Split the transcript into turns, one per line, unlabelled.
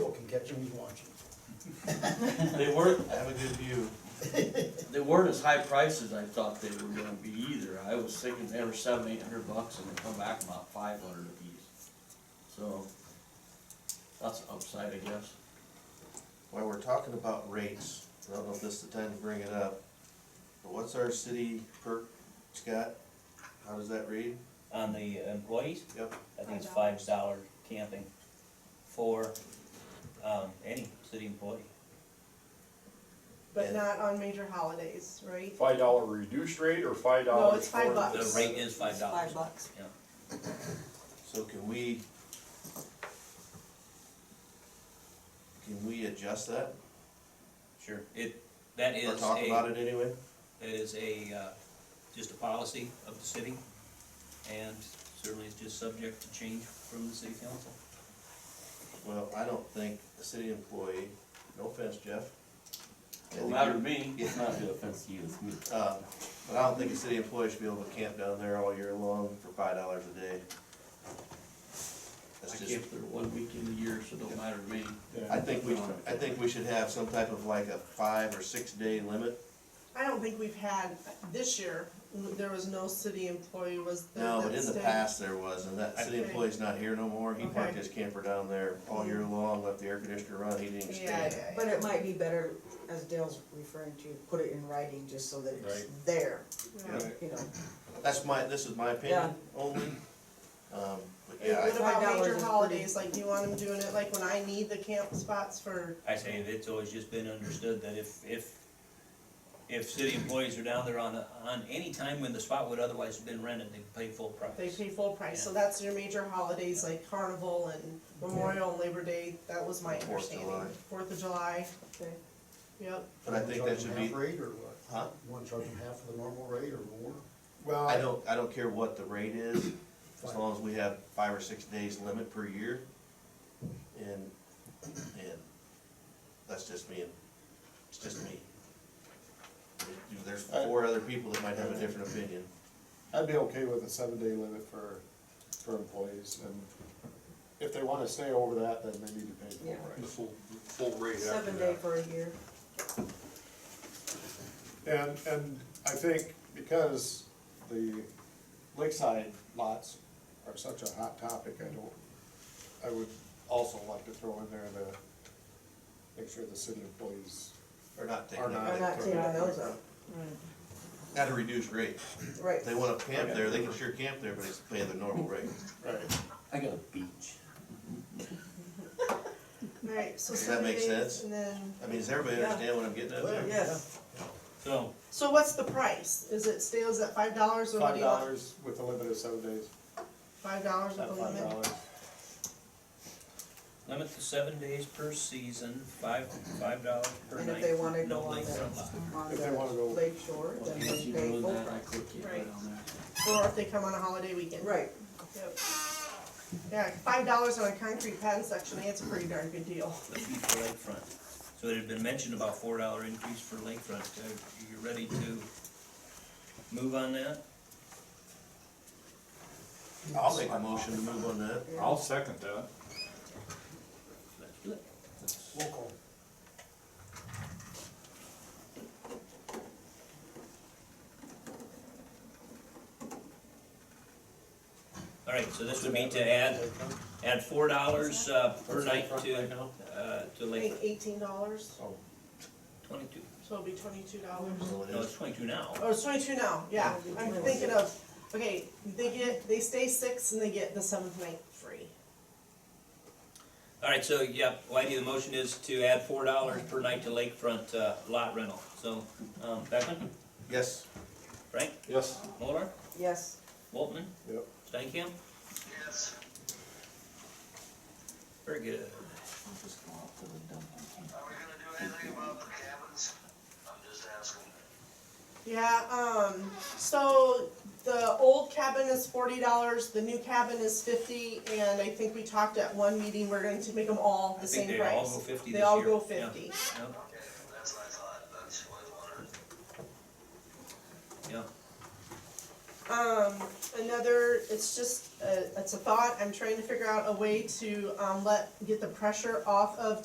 get you when you want you.
They weren't, have a good view. They weren't as high priced as I thought they were gonna be either. I was thinking they were seven, eight hundred bucks and they come back about five hundred apiece. So, that's an upside, I guess.
While we're talking about rates, I don't know if this is the time to bring it up, but what's our city per, Scott? How does that read?
On the employees,
Yep,
I think it's
Five
five dollar camping for, um, any city employee.
But not on major holidays, right?
Five dollar reduced rate or five dollars?
No, it's five
The
bucks.
rate is five dollars.
Five bucks.
so can we? Can we adjust that
Sure, it, that
or
is
talk about
a,
it anyway?
that is a, uh, just a policy of the city. And certainly it's just subject to change from the city council.
Well, I don't think a city employee, no offense, Jeff. I
Don't
think
matter to
you're-
me.
It's
not the offense to you, it's me.
Uh, but I don't think a city employee should be able to camp down there all year long for five dollars a day. That's
I
just.
camped there one week in the year, so it don't matter to me.
I think we, I think we should have some type of like a five or six day limit.
I don't think we've had, this year, there was no city employee was there
No, but
that
in the
stayed.
past there was, and that city
Okay.
employee's not here no more, he parked
Okay.
his camper down there all year long, left the air conditioner run, he didn't
Yeah,
stay.
yeah,
But it might be better, as Dale's referring to, put it in writing just so that it's there,
yeah.
Yeah.
you know.
That's my, this is my opinion only, um, but yeah,
What
I-
about
$5 is
major
pretty-
holidays, like, do you want them doing it, like, when I need the camp spots for,
I say it's always just been understood that if, if, if city employees are down there on, a- on any time when the spot would otherwise have been rented, they pay full price.
they pay full price, so that's your major holidays, like Carnival and Memorial and Labor Day, that was my
Fourth of
understanding.
July.
Fourth of July,
Okay.
yep,
but I think that should
Charge them
be,
half rate or what?
huh?
You wanna charge them half of the normal rate or more?
Well,
I
I-
don't, I don't care what the rate is, as long as we have five or six days limit per year. And, and that's just me, and it's just me. There's four other people that might have a different opinion.
I'd be okay with a seven-day limit for, for employees, and if they wanna stay over that, then they need to pay
Yeah.
The
full price.
full, full rate after
Seven day
that.
for a year.
And, and I think because the lakeside lots are such a hot topic, I don't, I would also like to throw in there to make sure the city employees
Or not taking
Or
that.
not.
I'm not taking those out.
At a reduced rate.
Right.
If they wanna camp there, they can sure camp there, but it's paying the normal rate.
Right.
I got a beach.
alright, so
Does that
seven
make
days,
sense?
and then,
I mean, does everybody
Yeah.
understand what I'm getting at there?
Yes,
So,
so what's the price? Is it stays at five dollars or what
Five
do you want?
dollars with a limit of seven days,
Five dollars with
not
a
five
limit?
dollars.
limit to seven days per season, five, five dollars per night.
and if they wanna
no
go on the,
lakefront lot.
on
If they wanna
the
go-
lake shore, then they pay full price.
Right. Or if they come on a holiday weekend.
Right,
Yep. Yeah, five dollars on a concrete pad section, that's a pretty darn good deal.
The fee for lakefront. So it had been mentioned about four dollar increase for lakefront. Uh, You ready to move on that?
I'll make a motion to move on that.
I'll second that.
Let's do it.
Roll call.
All right, so this would mean to add, add four dollars, uh, per night to, uh, to
I
lake,
think eighteen dollars,
twenty-two.
so it'll be twenty-two dollars.
So it
No,
is.
it's twenty-two now.
Oh, it's twenty-two now, yeah, I'm thinking of, okay, they get, they stay six and they get the seventh night free.
All right, so, yep, well, I do, the motion is to add four dollars per night to lakefront, uh, lot rental. So, um, Beckman,
Yes,
Frank,
Yes.
Muller,
yes.
Waltman,
Yep.
Stankham? Yes. Very good.
Are we gonna do anything about the cabins? I'm just asking.
Yeah, um, so the old cabin is forty dollars, the new cabin is fifty, and I think we talked at one meeting, we're going to make them all
I
the
think
same
they
price.
all go fifty this year.
They all go
Yeah,
fifty.
yeah.
Okay, that's what I thought, that's what I wondered.
Um, another, it's just, uh, it's a thought, I'm trying to figure out a way to, um, let, get the pressure off of